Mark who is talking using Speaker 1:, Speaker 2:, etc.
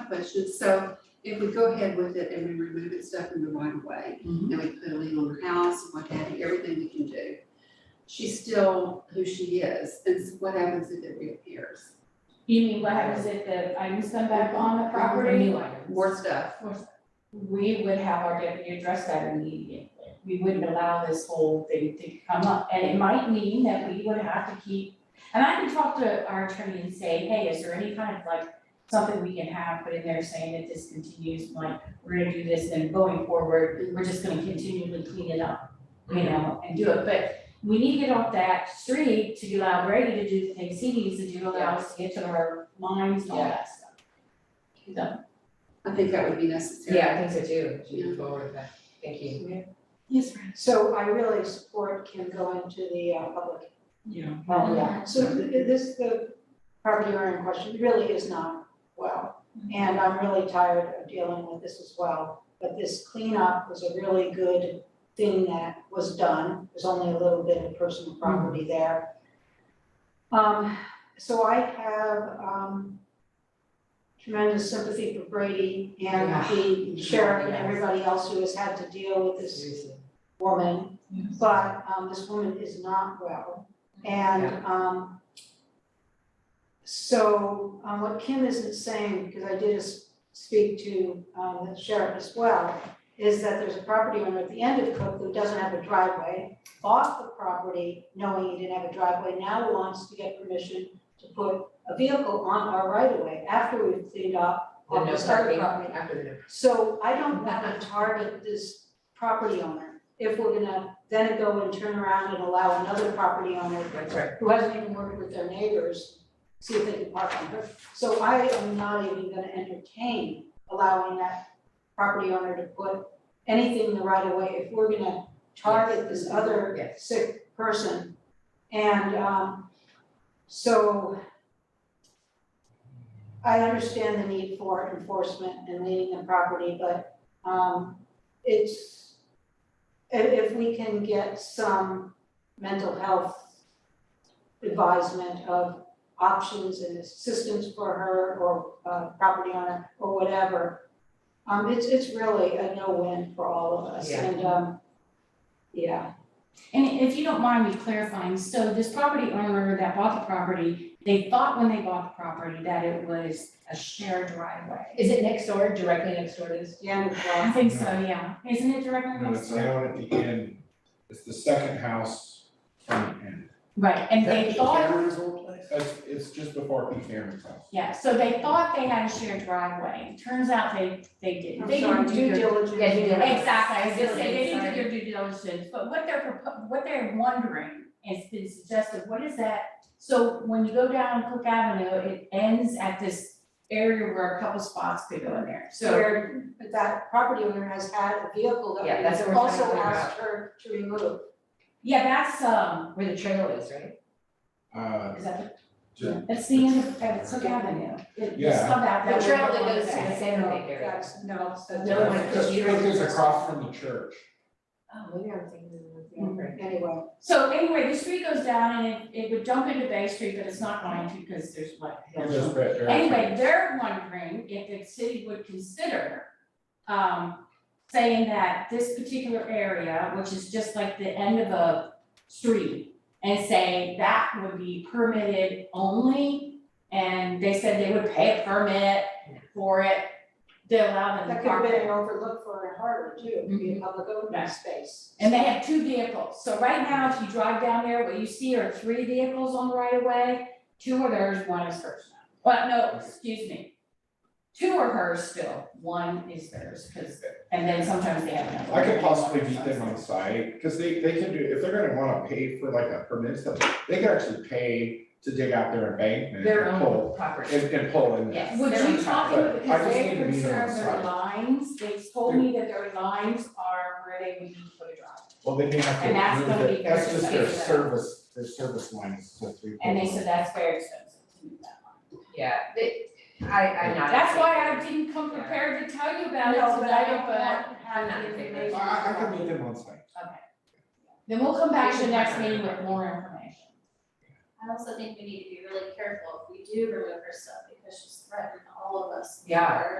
Speaker 1: questions, so if we go ahead with it and we remove it stuff in the right of way,
Speaker 2: Mhm.
Speaker 1: and we put a lien on her house, what have you, everything we can do, she's still who she is, and so what happens if it reappears?
Speaker 3: You mean what happens if the items come back on the property?
Speaker 2: New items.
Speaker 1: More stuff,
Speaker 3: We would have our deputy address that immediately. We wouldn't allow this whole thing to come up, and it might mean that we would have to keep. And I can talk to our attorney and say, hey, is there any kind of like, something we can have put in there saying that this continues, like, we're gonna do this and going forward, we're just gonna continually clean it up. You know, and do it, but we need to get off that street to allow Brady to do the things he needs to do, allow us to get to our lines and all that stuff.
Speaker 1: I think that would be necessary.
Speaker 2: Yeah, I think so too, should move forward with that, thank you.
Speaker 4: Yes, ma'am. So I really support Kim going to the uh, public.
Speaker 2: Yeah.
Speaker 4: Oh, yeah. So th- this, the property owner in question really is not well. And I'm really tired of dealing with this as well. But this cleanup was a really good thing that was done. There's only a little bit of personal
Speaker 2: Mm-hmm.
Speaker 4: property there. Um, so I have, um, tremendous sympathy for Brady and
Speaker 2: Yeah.
Speaker 4: the sheriff and everybody else who has had to deal with this
Speaker 2: Seriously.
Speaker 4: woman, but um this woman is not well. And um so um what Kim isn't saying, because I did s- speak to um the sheriff as well, is that there's a property owner at the end of Cook who doesn't have a driveway, bought the property knowing he didn't have a driveway, now wants to get permission to put a vehicle on our right of way after we've cleaned up
Speaker 2: The
Speaker 4: all
Speaker 2: no
Speaker 4: this other
Speaker 2: parking
Speaker 4: property.
Speaker 2: after the no.
Speaker 4: So I don't wanna target this property owner if we're gonna then go and turn around and allow another property owner
Speaker 2: That's right.
Speaker 4: who hasn't even worked with their neighbors, see if they can park on her. So I am not even gonna entertain allowing that property owner to put anything in the right of way if we're gonna target this other
Speaker 2: Yes.
Speaker 4: sick person. And um so I understand the need for enforcement and leading the property, but um it's i- if we can get some mental health advisement of options and assistance for her or uh property owner or whatever. Um it's it's really a no-win for all of us
Speaker 2: Yeah.
Speaker 4: and um yeah.
Speaker 3: And if you don't mind me clarifying, so this property owner that bought the property, they thought when they bought the property that it was a shared driveway.
Speaker 2: Is it next door, directly next door to this?
Speaker 4: Yeah,
Speaker 3: I
Speaker 4: well,
Speaker 3: think so, yeah. Isn't it directly
Speaker 5: No,
Speaker 3: next
Speaker 5: it's
Speaker 3: door?
Speaker 5: down at the end, it's the second house from the end.
Speaker 3: Right, and they thought,
Speaker 5: Cameron's old place? That's, it's just before Pete Cameron's house.
Speaker 3: yeah, so they thought they had a shared driveway. Turns out they, they didn't.
Speaker 4: I'm
Speaker 3: They
Speaker 4: sorry,
Speaker 3: didn't do
Speaker 4: due
Speaker 3: their
Speaker 4: diligence.
Speaker 2: Yeah, due diligence.
Speaker 3: Exactly, I was gonna say, they
Speaker 2: Sorry.
Speaker 3: didn't do their due diligence, but what they're, propo- what they're wondering is, been suggested, what is that? So when you go down Cook Avenue, it ends at this area where a couple spots could go in there, so.
Speaker 4: Where that property owner has had a vehicle
Speaker 2: Yeah,
Speaker 4: that
Speaker 2: that's what
Speaker 4: we
Speaker 2: we're trying to
Speaker 4: also
Speaker 2: figure
Speaker 4: asked her to remove.
Speaker 3: Yeah, that's, um,
Speaker 2: Where the trail is, right?
Speaker 5: Uh,
Speaker 3: is that,
Speaker 5: Yeah.
Speaker 3: the- that's the end of, that's Cook Avenue. It-
Speaker 5: Yeah.
Speaker 3: It's come out that
Speaker 2: The
Speaker 3: way.
Speaker 2: trail that Oh, goes to the San Jose area.
Speaker 4: That's, no, so
Speaker 2: The other one-
Speaker 5: just like there's across from the church.
Speaker 2: Oh, maybe I'm thinking of the other.
Speaker 4: anyway,
Speaker 3: So anyway, the street goes down and it, it would jump into Bay Street, but it's not going to, because there's what?
Speaker 5: It goes back there.
Speaker 3: Anyway, they're wondering if the city would consider, um, saying that this particular area, which is just like the end of a street, and say that would be permitted only, and they said they would pay a permit for it, they allow them to
Speaker 4: that could have
Speaker 3: park
Speaker 4: been an
Speaker 3: there.
Speaker 4: overlook for Harvard too, it could be a public
Speaker 3: Yeah.
Speaker 4: open space.
Speaker 3: Mm-hmm. And they have two vehicles, so right now, if you drive down there, what you see are three vehicles on the right of way, two are theirs, one is hers now. Well, no, excuse me. Two are hers still, one is theirs, cause, and then sometimes they have another.
Speaker 5: I could possibly beat them on site, because they, they can do, if they're gonna wanna pay for like a permit stuff, they could actually pay to dig out their embankment
Speaker 2: Their
Speaker 5: and pull,
Speaker 2: own property.
Speaker 5: and, and pull in there.
Speaker 3: Yes, would you talk to them,
Speaker 5: But I
Speaker 3: because
Speaker 5: just
Speaker 3: they're
Speaker 5: need to meet them on
Speaker 3: concerned their
Speaker 5: site.
Speaker 3: lines, they told me that their lines are where they would need to put a drive.
Speaker 5: Well, they may have
Speaker 3: And that's
Speaker 5: to
Speaker 3: gonna
Speaker 5: move
Speaker 3: be
Speaker 5: it, that's just their
Speaker 3: expensive.
Speaker 5: service, their service lines, so three.
Speaker 3: And they
Speaker 5: poles.
Speaker 3: said that's very expensive to do that line.
Speaker 2: Yeah, they, I, I'm not.
Speaker 3: That's why I didn't come prepared to tell you about it
Speaker 4: No, but I
Speaker 3: tonight, but
Speaker 4: don't want to have
Speaker 2: I'm not in
Speaker 4: the
Speaker 2: favor.
Speaker 4: information.
Speaker 5: I, I could meet them on site.
Speaker 3: Then we'll come back to the next meeting with more information.
Speaker 6: I also think we need to be really careful if we do remove her stuff because she's threatened all of us.
Speaker 2: Yeah.
Speaker 6: Her